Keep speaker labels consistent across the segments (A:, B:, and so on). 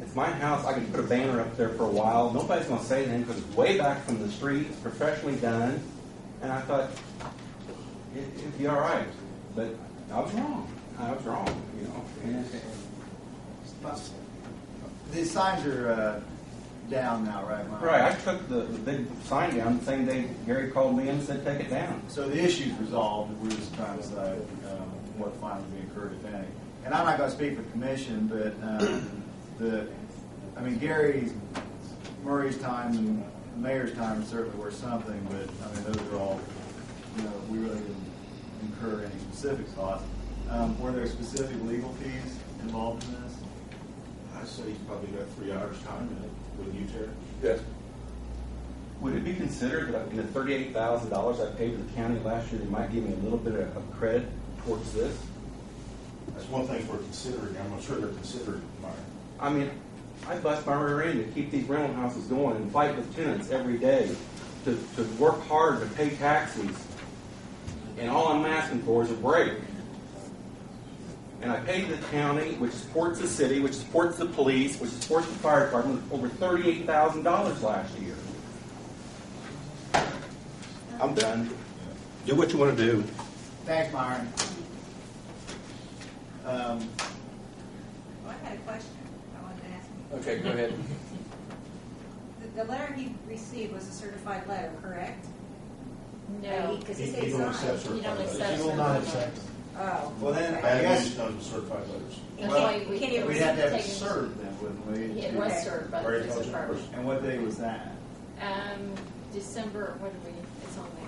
A: It's my house. I can put a banner up there for a while. Nobody's going to say anything because it's way back from the street. It's professionally done. And I thought, it, it'd be all right. But I was wrong. I was wrong, you know. And it-
B: The signs are uh, down now, right, Mike?
A: Right, I took the, the big sign down the same day Gary called me and said, take it down.
B: So the issue's resolved, we're just trying to decide um, what fines we incurred, if any. And I'm not gonna speak for the commission, but um, the, I mean, Gary's, Murray's time and the mayor's time certainly were something, but, I mean, those are all, you know, we really didn't incur any specific costs. Um, Were there specific legal fees involved in this?
C: I'd say you probably got three hours time in it, wouldn't you, Terry?
D: Yes.
A: Would it be considered that in the thirty-eight thousand dollars I paid to the county last year, they might give me a little bit of of credit towards this?
C: That's one thing we're considering, I'm not sure they're considering, Meyer.
A: I mean, I bust my rear end to keep these rental houses going and fight with tenants every day, to, to work hard to pay taxes. And all I'm asking for is a break. And I paid the county, which supports the city, which supports the police, which supports the fire department, over thirty-eight thousand dollars last year. I'm done.
D: Do what you want to do.
B: Thanks, Myron. Um,
E: Well, I had a question I wanted to ask you.
D: Okay, go ahead.
E: The, the letter he received was a certified letter, correct?
F: No,
E: Because
C: He-
E: he said
C: he
E: he's
C: don't
E: not.
C: accept
F: you
C: certified
F: don't
C: letters.
F: accept.
G: He will not accept.
E: Oh.
B: Well, then, I
C: Bad
B: guess-
C: news, none of certified letters.
F: That's
B: Well,
F: why we.
E: can you
B: We'd
F: it's
B: have to have
F: taken-
B: served them, wouldn't we?
F: It was served by the
C: Very
F: police
C: intelligent
F: department.
B: And what day was that?
F: Um, December, what did we, it's on there.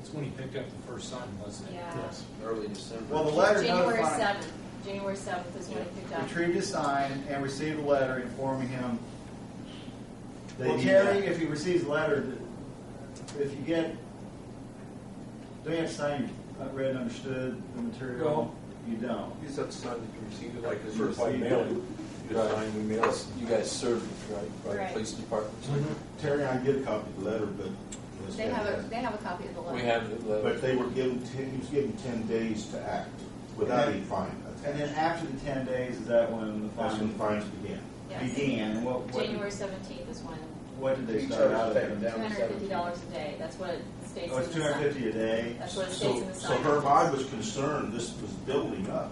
G: It's when he picked up the first sign, wasn't it?
F: Yeah. Yes.
D: Early December.
B: Well, the letter
F: January
B: notifying,
F: seventh, January seventh is when it picked up.
B: retrieved his sign and received a letter informing him.
C: They
B: Well,
C: need
B: Terry,
C: that.
B: if he receives a letter, if you get, don't you have to sign you read and understood the material? You don't.
D: You just have to sign that you received it, like
C: It's
D: as you
C: certified
D: received
C: mailing.
D: it.
C: You just sign, we mail it.
D: You guys served it, right? by the
F: Right.
D: Police department.
C: Terry, I get a copy of the letter, but. it's-
F: They have a, they have a copy of the letter.
D: We have the
C: But
D: letter.
C: they were given ten, he was given ten days to act without any fine.
B: And then after the ten days, is that when the
C: That's when
B: fine
C: fines began.
F: Yes.
B: began? And What, what,
F: January seventeenth is when,
B: what did they
D: He
B: start
D: charged
B: out
D: them
B: at?
F: two hundred and fifty dollars a day, that's what it states
B: Oh,
F: in the
B: it's two hundred
F: sign.
B: fifty a day?
F: That's what it states
C: So,
F: in the
C: so
F: sign.
C: Herb, I was concerned this was building up.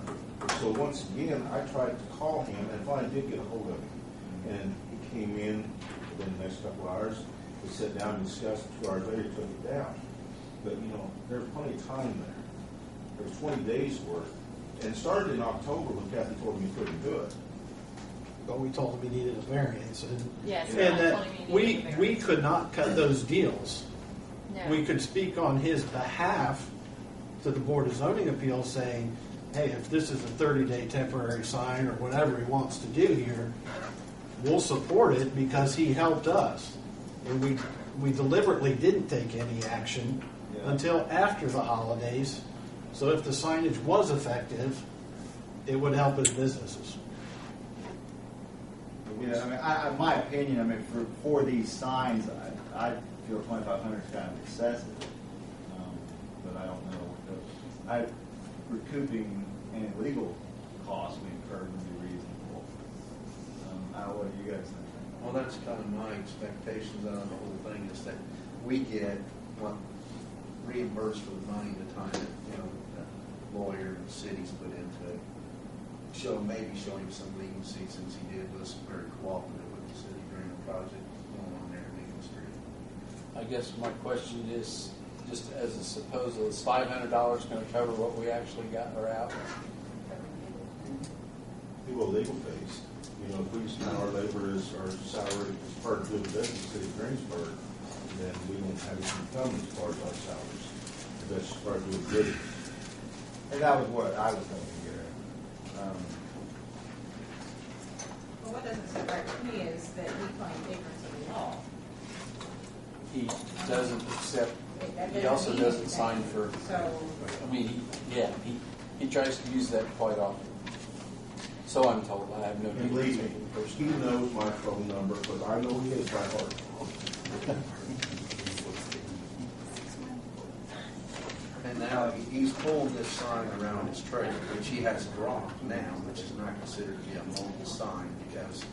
C: So once again, I tried to call him and finally did get a hold of him. And he came in within the next couple hours. We sat down and discussed. Two hours later, took it down. But you know, there was plenty of time there. There was 20 days worth. And it started in October when Kathy told me he couldn't do it.
G: But we told him he needed a variance and.
F: Yes.
G: And
F: that's
G: that,
F: only being
G: we,
F: given
G: we
F: there.
G: could not cut those deals.
F: No.
G: We could speak on his behalf to the Board of Zoning Appeals saying, hey, if this is a thirty-day temporary sign or whatever he wants to do here, we'll support it because he helped us. And we, we deliberately didn't take any action
B: Yeah.
G: until after the holidays. So if the signage was effective, it would help his businesses.
B: Yeah, I mean, I, I, my opinion, I mean, for, for these signs, I, I feel twenty-five hundred is kind of excessive. Um, But I don't know, what the- I, recouping any legal costs we incurred would be reasonable. Um, I, don't know what do you guys think?
H: Well, that's kind of my expectations out of the whole thing, is that we get what reimbursed for the money, the time that, you know, the lawyer and the city's put into it. Show, maybe show him some leniency since he did was very cooperative with the city during the project going on there in Eagle Street.
D: I guess my question is, just as a supposal, is five hundred dollars gonna cover what we actually got or out?
C: We will legal fees. You know, if we spend our labor as our salary as part of doing business in the city of Greensburg, then we won't have any income as part of our salaries. If That's part of doing business.
B: And that was what I was thinking, Gary. Um,
E: Well, what doesn't surprise me is that he claimed ignorance of the law.
D: He doesn't accept,
E: That- that
D: he also
E: mean
D: doesn't sign
E: anything.
D: for,
E: So,
D: I mean, he- yeah, he, he tries to use that quite often. So I'm told, I have no.
C: And believe me, he knows my phone number, because I know his by heart.
H: And now he- he's pulling this sign around his trailer, which he has dropped now, which is not considered to be a mobile sign because